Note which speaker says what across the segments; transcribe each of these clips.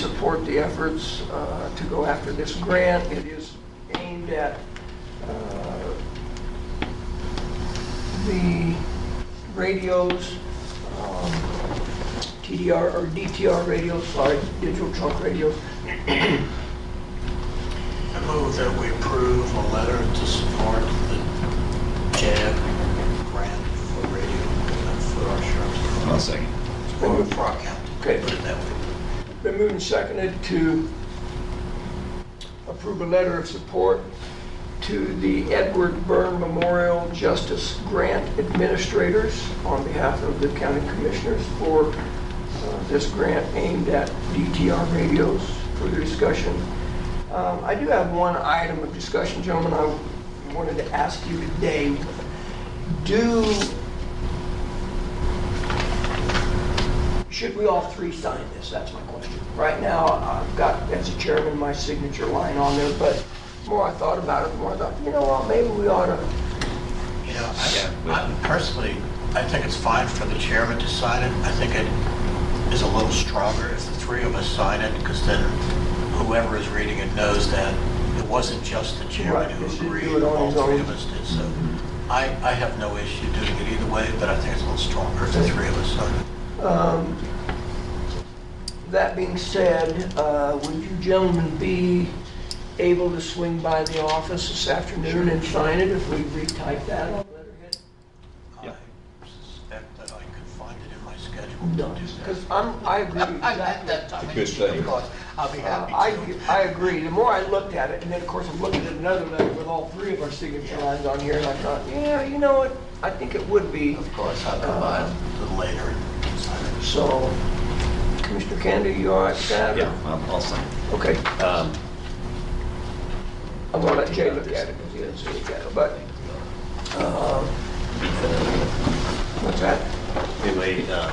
Speaker 1: support the efforts uh, to go after this grant. It is aimed at uh, the radios, um, TDR or DTR radios, sorry, digital trunk radios,
Speaker 2: I move that we approve a letter to support the JAB grant for radio equipment for our sheriff's
Speaker 3: I'll
Speaker 2: department.
Speaker 3: second.
Speaker 2: Or for our county.
Speaker 1: Okay.
Speaker 2: Put it that way.
Speaker 1: Been moved and seconded to approve a letter of support to the Edward Byrne Memorial Justice Grant Administrators on behalf of the county commissioners for uh, this grant aimed at DTR radios. Further discussion. Um, I do have one item of discussion, gentlemen, I wanted to ask you today. Do, should we all three sign this? That's my question. Right now, I've got, as a chairman, my signature line on there, but the more I thought about it, the more I thought, you know what, maybe we ought to,
Speaker 2: You know,
Speaker 3: Yeah,
Speaker 2: I-
Speaker 3: we-
Speaker 2: I, personally, I think it's fine for the chairman to sign it. I think it is a little stronger if the three of us sign it, because then whoever is reading it knows that it wasn't just the
Speaker 1: Right,
Speaker 2: chairman
Speaker 1: he should
Speaker 2: who
Speaker 1: do
Speaker 2: agreed,
Speaker 1: it on
Speaker 2: all
Speaker 1: his
Speaker 2: three
Speaker 1: own. Mm-hmm.
Speaker 2: of us did, so I, I have no issue doing it either way, but I think it's a little stronger if the three of us sign it.
Speaker 1: um, that being said, uh, would you gentlemen be able to swing by the office this afternoon and sign it if we retype that on letterhead?
Speaker 2: I
Speaker 3: Yeah.
Speaker 2: suspect that I could find it in my schedule
Speaker 1: No,
Speaker 2: to do
Speaker 1: because
Speaker 2: that.
Speaker 1: I'm, I agree
Speaker 2: I'm at
Speaker 1: exactly.
Speaker 2: that time.
Speaker 3: It's a good thing.
Speaker 2: Of course, I'll be
Speaker 1: Uh,
Speaker 2: happy
Speaker 1: I,
Speaker 2: to.
Speaker 1: I agree. The more I looked at it, and then of course I'm looking at another letter with all three of our signature lines on here, and I thought, yeah, you know what? I think it would be.
Speaker 2: Of course, I'll come by a little later and sign it.
Speaker 1: So, Commissioner Candy, you all right with that?
Speaker 3: Yeah, I'll, I'll second.
Speaker 1: Okay,
Speaker 3: Um,
Speaker 1: I'm gonna let Jay look at it, because he doesn't see it yet, but, uh, what's that?
Speaker 3: Anyway, uh,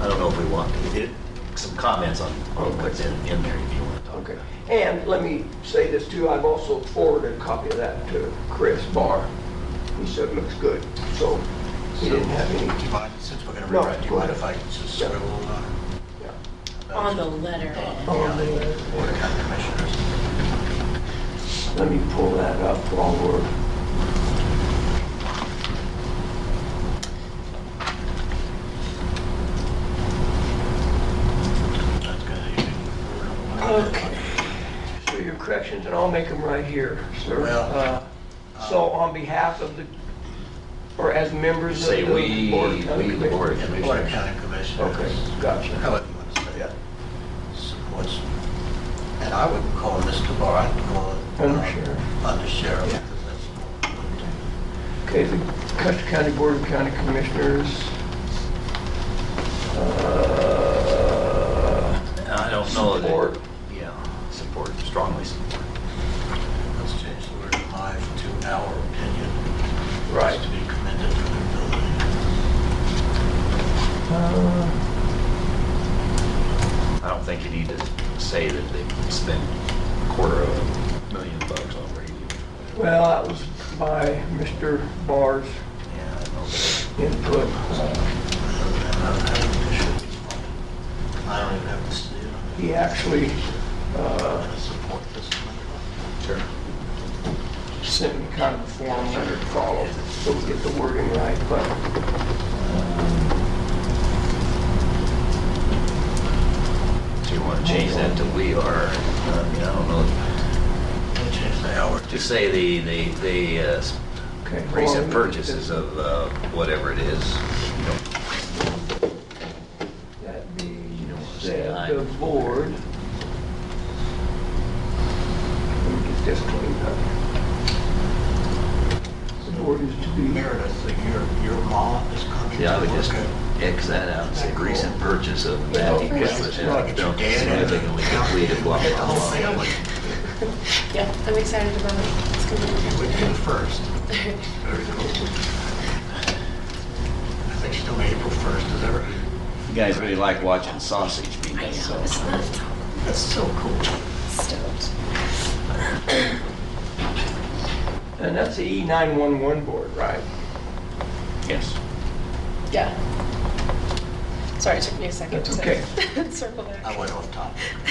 Speaker 3: I don't know if we want, it, some comments on on what's in, in there if you want to talk.
Speaker 1: Okay. And let me say this too, I've also forwarded a copy of that to Chris Barr. He said it looks good, so he didn't have
Speaker 2: Do
Speaker 1: any,
Speaker 2: you mind, since we're going to
Speaker 1: No,
Speaker 2: rewrite, do you
Speaker 1: go
Speaker 2: mind
Speaker 1: ahead.
Speaker 2: if I just
Speaker 1: Yeah.
Speaker 2: scribble uh, on
Speaker 1: yeah.
Speaker 4: On the letter.
Speaker 1: On the-
Speaker 2: Board of County Commissioners?
Speaker 1: Let me pull that up while we're,
Speaker 2: That's good.
Speaker 1: okay. So your corrections, and I'll make them right here, sir.
Speaker 2: Well,
Speaker 1: Uh, So on behalf of the, or as members of
Speaker 3: Say
Speaker 1: the
Speaker 3: we,
Speaker 1: board. of County
Speaker 3: we, the board of
Speaker 2: Yeah, Board of
Speaker 3: commissioners.
Speaker 2: County Commissioners.
Speaker 1: Okay, gotcha.
Speaker 2: However you want to say
Speaker 1: Yeah.
Speaker 2: it. Supports, and I wouldn't call him Mr. Barr, I'd call um, him.
Speaker 1: Undersheriff.
Speaker 2: Under sheriff.
Speaker 1: Yeah. Okay, the Custer County Board of County Commissioners. Uh,
Speaker 3: I don't know that.
Speaker 1: Support.
Speaker 3: Yeah, support, strongly support.
Speaker 2: Let's change the word my to our opinion.
Speaker 1: Right.
Speaker 2: To be commended for their ability.
Speaker 1: uh,
Speaker 3: I don't think you need to say that they spent a quarter of a million bucks on radio.
Speaker 1: Well, that was by Mr. Barr's
Speaker 3: Yeah, I know that.
Speaker 1: input. Uh,
Speaker 2: I don't even have to see it.
Speaker 1: He actually
Speaker 2: I'm
Speaker 1: uh,
Speaker 2: going to support this.
Speaker 3: Sure.
Speaker 1: sent me kind of a form letter to follow, so we get the wording right, but.
Speaker 3: So you want to change that to we are, uh, I mean, I don't know,
Speaker 2: Let me change the hour. to-
Speaker 3: just say the, the, the uh, s-
Speaker 1: okay,
Speaker 3: recent
Speaker 1: well,
Speaker 3: purchases of uh, whatever it is. You know,
Speaker 1: That being
Speaker 3: You don't wanna say
Speaker 1: said,
Speaker 3: aye.
Speaker 1: the board. Let me get this cleaned up. The board is to be,
Speaker 2: Meredith, that your, your mom is coming to
Speaker 3: Yeah, I would just
Speaker 2: work at.
Speaker 3: X that out, and say recent purchase of that equipment.
Speaker 2: Yeah, get your dad in there.
Speaker 3: Significantly depleted, blah,
Speaker 2: Get the
Speaker 3: blah,
Speaker 2: whole
Speaker 3: blah.
Speaker 2: family.
Speaker 4: Yeah, I'm excited about it. It's gonna be
Speaker 2: You
Speaker 4: good.
Speaker 2: would be the first. Very cool. I think she's doing April 1st, is ever.
Speaker 3: You guys really like watching sausage be
Speaker 4: I
Speaker 3: made,
Speaker 4: know,
Speaker 3: so.
Speaker 4: it's not
Speaker 2: That's so cool.
Speaker 4: stoked.
Speaker 1: and that's the E E911 board, right?
Speaker 3: Yes.
Speaker 4: Yeah. Sorry, it took me a second
Speaker 1: That's
Speaker 4: to
Speaker 1: okay.
Speaker 4: circle back.
Speaker 2: I went off topic.